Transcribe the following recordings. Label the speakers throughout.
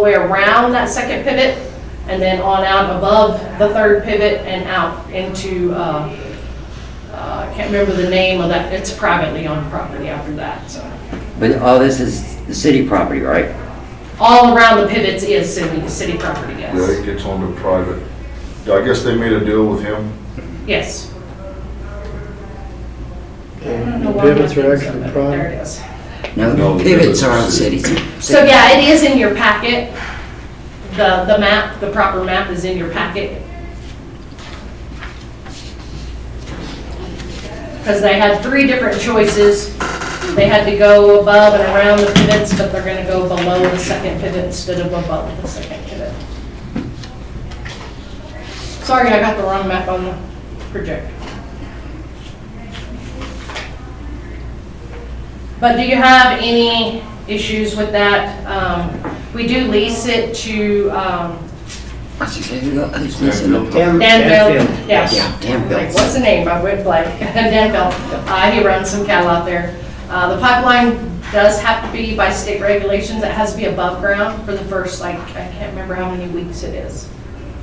Speaker 1: the way around that second pivot and then on out above the third pivot and out into, uh, uh, I can't remember the name of that, it's privately owned property after that, so.
Speaker 2: But all this is the city property, right?
Speaker 1: All around the pivots is city, city property,
Speaker 3: Yeah,
Speaker 1: yes.
Speaker 3: it gets onto private. I guess they made a deal with him.
Speaker 1: Yes. I don't know
Speaker 4: The
Speaker 1: why I'm
Speaker 4: pivots are
Speaker 1: not thinking so,
Speaker 4: actually
Speaker 1: but There it
Speaker 4: private.
Speaker 1: is.
Speaker 2: No,
Speaker 3: No,
Speaker 2: pivots are
Speaker 3: pivots.
Speaker 2: on cities.
Speaker 1: So yeah, it is in your packet. The, the map, the proper map is in your packet. Because they had three different choices. They had to go above and around the pivots, but they're gonna go below the second pivot instead of above the second pivot. Sorry, I got the wrong map on the projector. But do you have any issues with that? Um, We do lease it to um,
Speaker 2: What's he say? Who's missing them?
Speaker 4: Dan-
Speaker 1: Danville.
Speaker 4: Danfield.
Speaker 1: Yes.
Speaker 2: Yeah,
Speaker 1: Like,
Speaker 2: Danville.
Speaker 1: What's the name? I went blank. Danville. Uh, He runs some cattle out there. Uh, The pipeline does have to be by state regulations. It has to be above ground for the first, like, I can't remember how many weeks it is.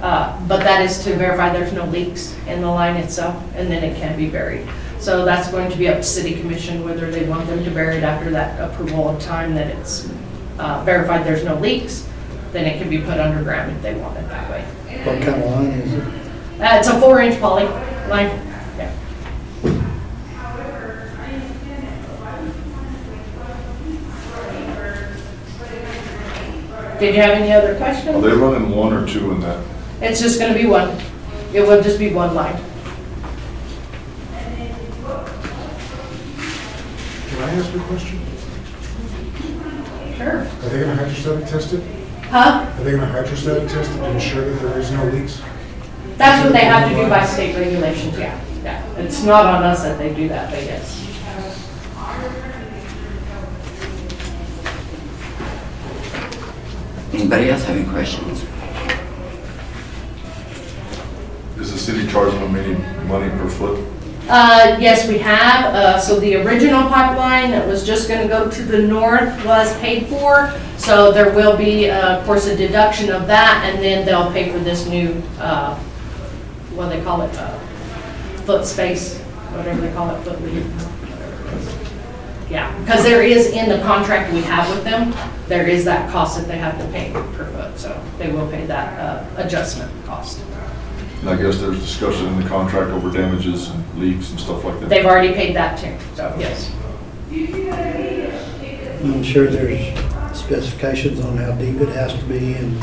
Speaker 1: Uh, But that is to verify there's no leaks in the line itself, and then it can be buried. So that's going to be up to city commission whether they want them to bury it after that approval of time that it's uh, verified there's no leaks. Then it can be put underground if they want it that way.
Speaker 4: What kind of line is it?
Speaker 1: Uh, It's a four-inch poly line. Yeah. Did you have any other
Speaker 3: Are
Speaker 1: questions?
Speaker 3: they running one or two in that?
Speaker 1: It's just gonna be one. It will just be one line.
Speaker 5: Can I ask you a question?
Speaker 1: Sure.
Speaker 5: Are they gonna hydrostatic test it?
Speaker 1: Huh?
Speaker 5: Are they gonna hydrostatic test it to ensure that there is no leaks?
Speaker 1: That's what they have to do by state regulations, yeah. Yeah. It's not on us that they do that, but yes.
Speaker 2: Anybody else have any questions?
Speaker 3: Is the city charging them any money per foot?
Speaker 1: Uh, yes, we have. Uh, so the original pipeline that was just gonna go to the north was paid for. So there will be, uh, of course, a deduction of that and then they'll pay for this new, uh, what do they call it, uh, foot space, whatever they call it, foot lead. whatever it is. Yeah, because there is in the contract we have with them, there is that cost that they have to pay per foot. So they will pay that, uh, adjustment cost.
Speaker 3: And I guess there's discussion in the contract over damages and leaks and stuff like that.
Speaker 1: They've already paid that too, so yes.
Speaker 4: I'm sure there's specifications on how deep it has to be and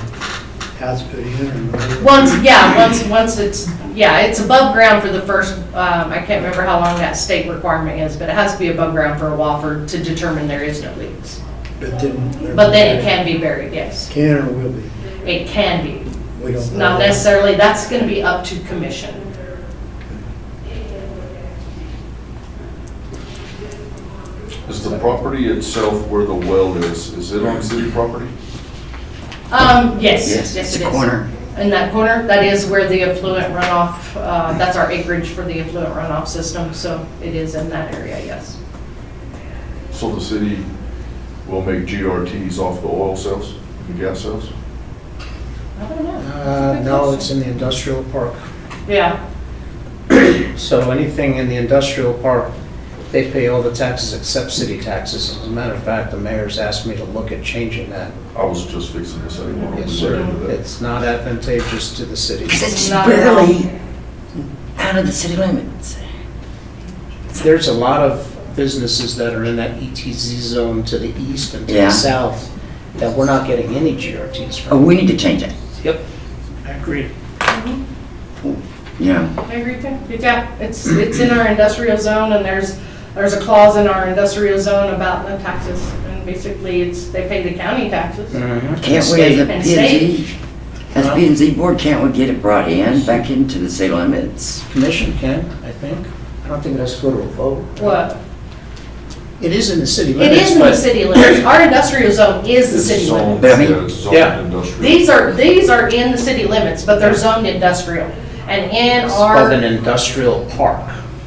Speaker 4: how it's put in and whatever.
Speaker 1: Once, yeah, once, once it's, yeah, it's above ground for the first, um, I can't remember how long that state requirement is, but it has to be above ground for a while for, to determine there is no leaks.
Speaker 4: But then.
Speaker 1: But then it can be buried, yes.
Speaker 4: Can or will be.
Speaker 1: It can be.
Speaker 4: We don't know.
Speaker 1: Not necessarily, that's gonna be up to commission.
Speaker 3: Is the property itself where the well is, is it on city property?
Speaker 1: Um, yes, yes
Speaker 2: Yes,
Speaker 1: it is.
Speaker 2: it's a corner.
Speaker 1: In that corner, that is where the affluent runoff, uh, that's our acreage for the affluent runoff system, so it is in that area, yes.
Speaker 3: So the city will make GRTs off the oil sales, the gas sales?
Speaker 1: I don't know.
Speaker 6: Uh, No, it's in the industrial park.
Speaker 1: Yeah,
Speaker 6: So anything in the industrial park, they pay all the taxes except city taxes. As a matter of fact, the mayor's asked me to look at changing that.
Speaker 3: I was just fixing to say, what
Speaker 6: Yes,
Speaker 3: was
Speaker 6: sir.
Speaker 3: there into that?
Speaker 6: It's not advantageous to the city.
Speaker 2: Because it's
Speaker 1: Not
Speaker 2: just
Speaker 1: at all.
Speaker 2: barely out of the city limits.
Speaker 6: There's a lot of businesses that are in that ETZ zone to the east and to
Speaker 2: Yeah.
Speaker 6: the south that we're not getting any GRTs
Speaker 2: Oh,
Speaker 6: from.
Speaker 2: we need to change that,
Speaker 6: Yep.
Speaker 4: I agree.
Speaker 2: you know?
Speaker 1: I agree too. Yeah, it's, it's in our industrial zone and there's, there's a clause in our industrial zone about the taxes. And basically it's, they pay the county taxes.
Speaker 6: Mm-hmm.
Speaker 2: Can't we, as a
Speaker 1: And
Speaker 2: P and Z, as
Speaker 6: Well-
Speaker 2: P and Z board, can't we get it brought in, back into the city limits?
Speaker 6: Commission can, I think. I don't think it has to go to a vote.
Speaker 1: What?
Speaker 6: It is in the city
Speaker 1: It
Speaker 6: limits,
Speaker 1: is in the
Speaker 6: but-
Speaker 1: city limits. Our industrial zone is the
Speaker 3: It's
Speaker 1: city limits.
Speaker 3: zoned,
Speaker 2: But I mean-
Speaker 3: yeah, it's zoned
Speaker 6: Yeah.
Speaker 3: industrial.
Speaker 1: These are, these are in the city limits, but they're zoned industrial. And in
Speaker 6: It's called an
Speaker 1: our,
Speaker 6: industrial park.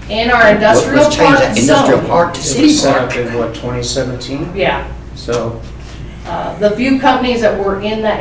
Speaker 1: in our
Speaker 2: Let's
Speaker 1: industrial
Speaker 2: change
Speaker 1: park
Speaker 2: that Industrial
Speaker 1: zone.
Speaker 2: park to
Speaker 6: It was
Speaker 2: city
Speaker 6: set
Speaker 2: park.
Speaker 6: up in what, 2017?
Speaker 1: Yeah,
Speaker 6: So
Speaker 1: uh, the few companies that were in that